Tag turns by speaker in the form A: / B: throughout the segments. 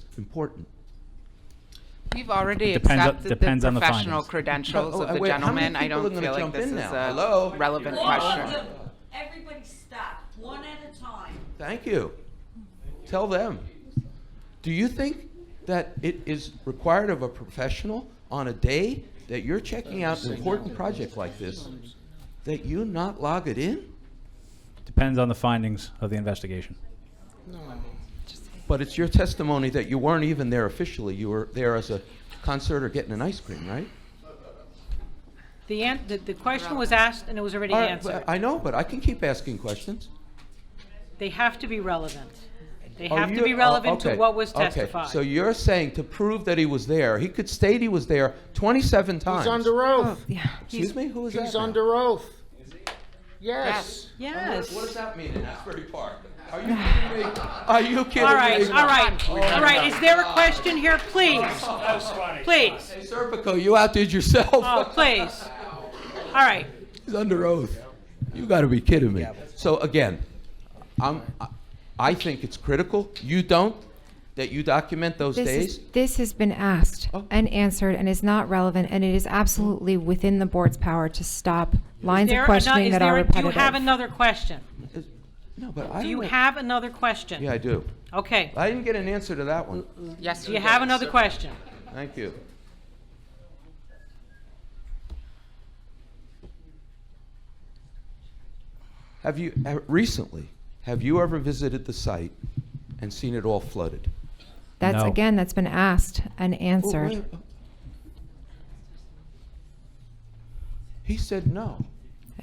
A: It's important.
B: We've already
C: Depends on-
B: accepted the
C: depends on the
B: professional
C: findings.
B: credentials
A: Oh,
B: of the
A: wait, how many
B: gentleman. I
A: people are
B: don't
A: gonna
B: feel like
A: jump
B: this
A: in
B: is
A: now? Hello?
B: a relevant question.
D: Everybody stop, one at a time.
A: Thank you. Tell them. Do you think that it is required of a professional on a day that you're checking out an important project like this, that you not log it in?
C: Depends on the findings of the investigation.
A: But it's your testimony that you weren't even there officially. You were there as a concert or getting an ice cream, right?
E: The an, the, the question was asked and it was already
A: All right,
E: answered.
A: but I know, but I can keep asking questions.
E: They have to be relevant. They
A: Oh,
E: have to
A: you-
E: be
A: oh,
E: relevant to
A: okay,
E: what was
A: okay.
E: testified.
A: So you're saying to prove that he was there, he could state he was there 27 times.
F: He's under oath.
A: Excuse me? Who is that?
F: He's
A: now?
F: under oath. Yes.
E: Yes.
A: What does that mean in Asbury Park? Are you kidding me? Are you kidding
E: All right,
A: me?
E: all right, all right. Is there a question here, please? Please,
A: Hey, Serpico, you outdid yourself.
E: oh, please. All right,
A: He's under oath. You got to be kidding me. So again, I'm, I- I think it's critical. You don't that you document those
G: This,
A: days.
G: is, this has been asked
A: Oh.
G: and answered and is not relevant, and it is absolutely within the board's power to stop lines
E: there
G: of
E: ano- is
G: questioning that are
E: there, do you
G: repetitive.
E: have another question?
A: no, but I
E: Do
A: don't
E: you
A: know-
E: have another question?
A: Yeah, I do.
E: Okay,
A: I didn't get an answer to that one.
B: Yes,
E: do you have
B: did,
E: another
B: sir.
E: question?
A: Thank you. Have you uh, recently? Have you ever visited the site and seen it all flooded?
G: That's
C: No.
G: again, that's been asked and
A: Well, uh,
G: answered.
A: wait- He said no.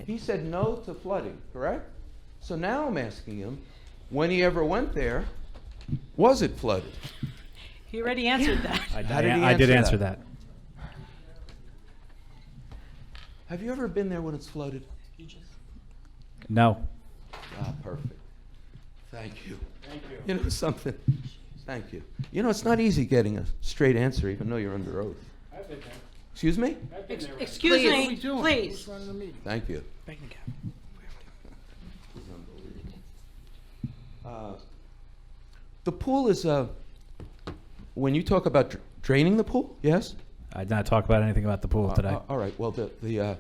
A: He said no to flooding, correct? So now I'm asking him, when he ever went there, was it flooded?
E: He already answered that.
C: I
A: How did he
C: I did
A: answer
C: answer
A: that?
C: that.
A: Have you ever been there when it's flooded?
C: No.
A: Ah, perfect. Thank you. Thank you. You know something? Thank you. You know, it's not easy getting a straight answer, even though you're under oath. Excuse me?
E: Ex- Excuse me, please.
A: Thank you. Uh, The pool is a, when you talk about dr- draining the pool, yes?
C: I did not talk about anything about the pool
A: Uh,
C: today.
A: uh, All right, well, the, the, uh,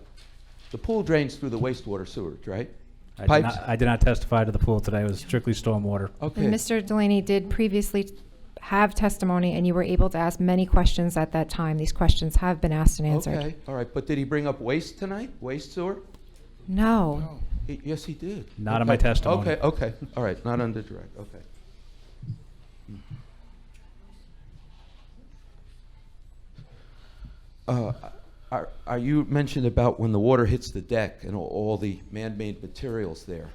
A: the pool drains through the wastewater sewage, right?
C: I did,
A: Pipes?
C: not, I did not testify to the pool today. It was strictly stormwater.
G: And
A: Okay,
G: Mr. Delaney did previously t- have testimony, and you were able to ask many questions at that time. These questions have been asked and answered.
A: okay, all right, but did he bring up waste tonight, waste sewer?
G: No.
A: He- Yes, he did.
C: Not in my
A: Okay,
C: testimony.
A: Okay, okay, all right, not under direct, okay. Hmm. Uh, Are, are you mentioned about when the water hits the deck and all- all the man-made materials there,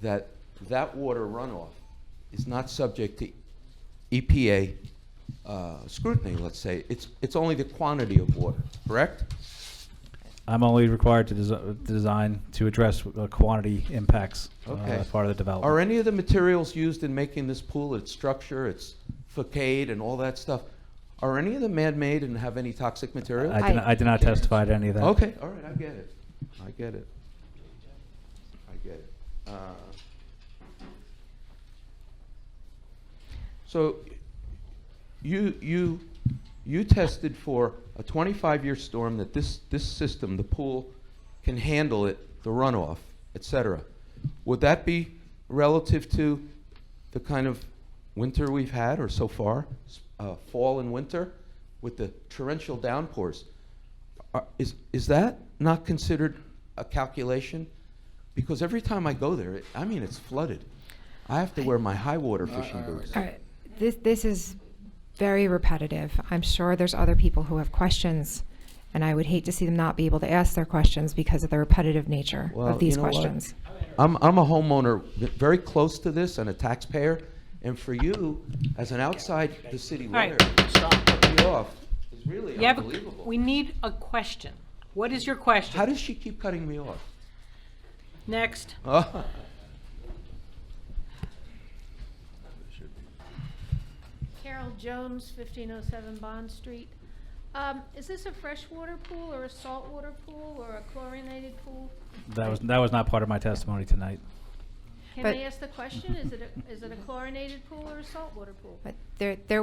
A: that that water runoff is not subject to EPA uh, scrutiny, let's say? It's, it's only the quantity of water, correct?
C: I'm only required to desi- design to address uh, quantity impacts uh,
A: Okay.
C: as part of the development.
A: Are any of the materials used in making this pool, its structure, its facade, and all that stuff, are any of them man-made and have any toxic material?
C: I, did not, I did not testify to any of that.
A: Okay, all right, I get it. I get it. I get it. Uh, So you, you, you tested for a 25-year storm that this, this system, the pool, can handle it, the runoff, et cetera. Would that be relative to the kind of winter we've had or so far, s- uh, fall and winter, with the torrential downpours? Are- Is, is that not considered a calculation? Because every time I go there, it- I mean, it's flooded. I have to wear my high water fishing boots.
G: All right. This, this is very repetitive. I'm sure there's other people who have questions, and I would hate to see them not be able to ask their questions because of the repetitive nature
A: Well,
G: of these
A: you know what?
G: questions.
A: I'm, I'm a homeowner v- very close to this and a taxpayer, and for you, as an outside the city
E: right.
A: lawyer, to stop cutting me off is really
E: You have a-
A: unbelievable.
E: we need a question. What is your
A: How
E: question?
A: does she keep cutting me off?
E: Next.
A: Oh.
H: Carol Jones, 1507 Bond Street. Um, Is this a freshwater pool or a saltwater pool or a chlorinated pool?
C: That was that was not part of my testimony tonight.
H: Can
G: But-
H: I ask the question? Is it a- is it a chlorinated pool or a saltwater pool?
G: But there, there